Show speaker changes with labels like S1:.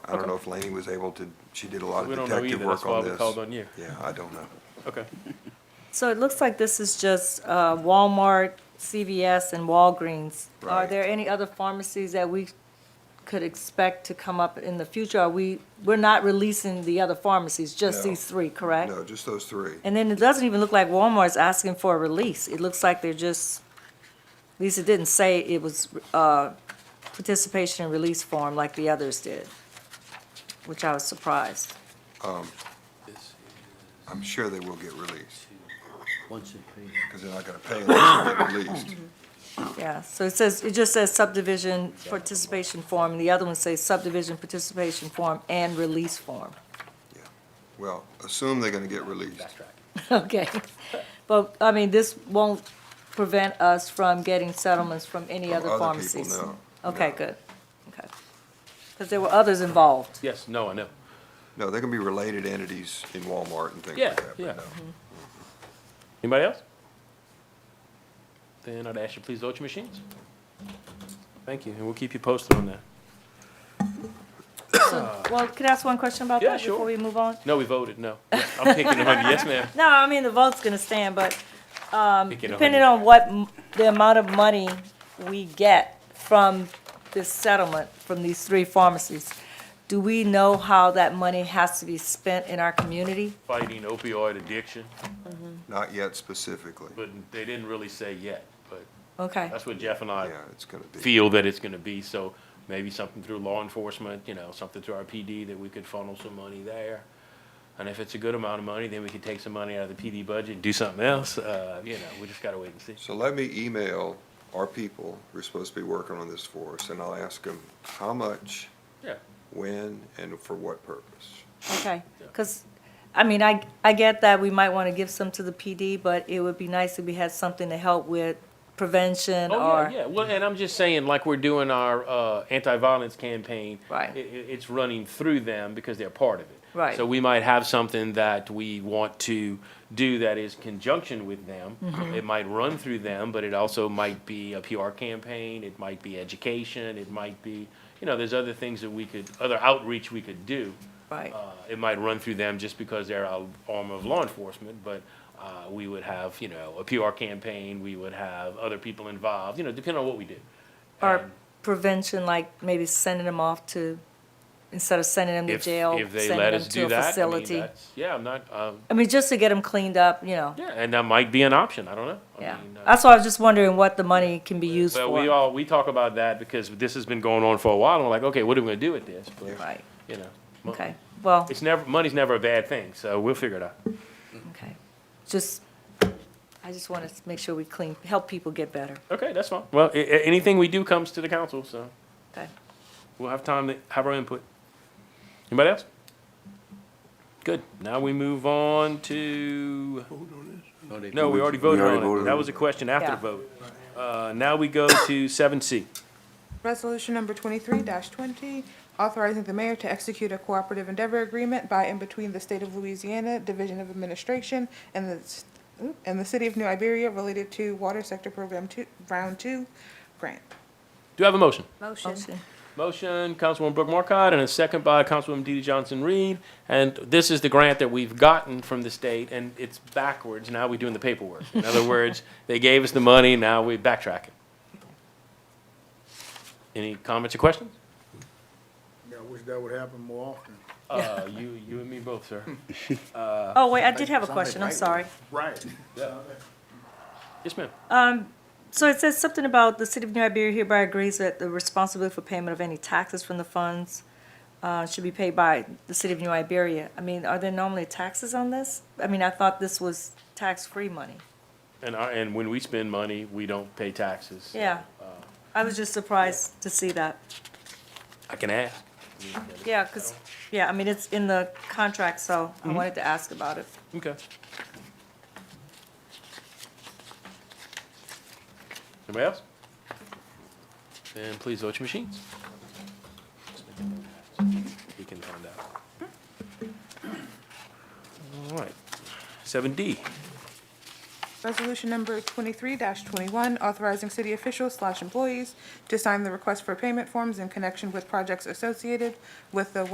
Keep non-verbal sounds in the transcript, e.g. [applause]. S1: if Laney was able to, she did a lot of
S2: We don't know
S1: detective
S2: either. That's
S1: work
S2: why
S1: on this.
S2: we called on you.
S1: Yeah, I don't know.
S2: Okay.
S3: So it looks like this is just uh, Walmart, CVS, and Walgreens. Are
S1: Right.
S3: there any other pharmacies that we could expect to come up in the future? Are we, we're not releasing the other pharmacies, just
S1: No.
S3: these three, correct?
S1: No, just those three.
S3: And then it doesn't even look like Walmart's asking for a release. It looks like they're just, at least it didn't say it was uh, participation and release form like the others did, which I was surprised.
S1: I'm sure they will get released,
S4: Once it pays.
S1: because they're not gonna pay unless they get released.
S3: Yeah, so it says, it just says subdivision participation form, and the other one says subdivision participation form and release form. [laughs]
S1: Well, assume they're gonna get released.
S3: Okay, but, I mean, this won't prevent us from getting settlements from any
S1: From other
S3: other
S1: people,
S3: pharmacies?
S1: no,
S3: Okay,
S1: no.
S3: good, okay. Because there were others involved.
S2: Yes, no, I know.
S1: No, they're gonna be related entities in Walmart and things
S2: Yeah,
S1: like that,
S2: yeah.
S1: but no.
S2: Anybody else? Then I'd ask you please vote your machines. Thank you, and we'll keep you posted on that.
S3: Well, could I ask one question about
S2: Uh-huh. Yeah,
S3: that
S2: sure.
S3: before we move on?
S2: No, we voted, no. Yes, I'm picking on you, yes, ma'am.
S3: No, I mean, the vote's gonna stand, but
S2: Picking on
S3: Depending
S2: you.
S3: on what, m- the amount of money we get from this settlement, from these three pharmacies, do we know how that money has to be spent in our community?
S2: Fighting opioid addiction,
S1: Not yet specifically.
S2: but they didn't really say yet, but
S3: Okay,
S2: that's what Jeff and I
S1: Yeah, it's gonna be.
S2: feel that it's gonna be, so maybe something through law enforcement, you know, something through our PD that we could funnel some money there. And if it's a good amount of money, then we could take some money out of the PD budget and do something else, uh, you know, we just gotta wait and see.
S1: So let me email our people who are supposed to be working on this for us, and I'll ask them how much,
S2: Yeah,
S1: when, and for what purpose.
S3: okay, because, I mean, I, I get that we might want to give some to the PD, but it would be nice if we had something to help with prevention
S2: Oh,
S3: or,
S2: yeah, yeah. Well, and I'm just saying, like we're doing our uh, anti-violence campaign.
S3: Right.
S2: i- i- it's running through them because they're part of it.
S3: Right.
S2: So we might have something that we want to do that is conjunction with them.
S3: Mm-hmm.
S2: It might run through them, but it also might be a PR campaign. It might be education. It might be, you know, there's other things that we could, other outreach we could do.
S3: right,
S2: Uh, it might run through them just because they're our arm of law enforcement, but uh, we would have, you know, a PR campaign, we would have other people involved, you know, depending on what we do.
S3: or
S2: And
S3: prevention, like maybe sending them off to, instead of sending them to
S2: if-
S3: jail,
S2: if they
S3: sending
S2: let
S3: them
S2: us
S3: to
S2: do
S3: a
S2: that, I mean,
S3: facility.
S2: that's- Yeah, I'm not, uh,
S3: I mean, just to get them cleaned up, you know.
S2: yeah, and that might be an option, I don't know. I
S3: Yeah,
S2: mean, uh,
S3: that's why I was just wondering what the money can be used
S2: But we
S3: for.
S2: all, we talk about that because this has been going on for a while, and we're like, okay, what are we gonna do with this? But,
S3: Right,
S2: You know. mo-
S3: okay, well,
S2: It's never, money's never a bad thing, so we'll figure it out.
S3: okay, just, I just want to make sure we clean, help people get better,
S2: Okay, that's fine. Well, a- a- anything we do comes to the council, so.
S3: okay?
S2: We'll have time to have our input. Anybody else? Good. Now we move on to, no, we already voted on it. That was a question after the
S3: Yeah.
S2: vote. Uh, now we go to seven C.
S5: Resolution number twenty-three twenty, authorizing the mayor to execute a cooperative endeavor agreement by and between the state of Louisiana Division of Administration and the, s- oop, and the city of New Iberia related to Water Sector Program Two, Round Two grant.
S2: Do I have a motion?
S3: Motion.
S2: Motion, Councilwoman Brooke Markcott, and a second by Councilwoman DeeDee Johnson-Reed. And this is the grant that we've gotten from the state, and it's backwards. Now we're doing the paperwork. In other words, they gave us the money, now we backtrack it. Any comments or questions?
S6: I wish that would happen more often.
S2: Uh, you, you and me both, sir. Uh,
S3: Oh, wait, I did have a question, I'm sorry.
S6: Right.
S2: Yes, ma'am.
S3: So it says something about the city of New Iberia hereby agrees that the responsibility for payment of any taxes from the funds uh, should be paid by the city of New Iberia. I mean, are there normally taxes on this? I mean, I thought this was tax-free money.
S2: And our, and when we spend money, we don't pay taxes.
S3: Yeah,
S2: uh,
S3: I was just surprised to see that.
S2: I can ask.
S3: Yeah, because, yeah, I mean, it's in the contract, so I wanted to ask about it.
S2: Okay. Anybody else? Then please vote your machines. We can find out. All right. Seven D.
S5: Resolution number twenty-three twenty-one, authorizing city officials slash employees to sign the request for payment forms in connection with projects associated with the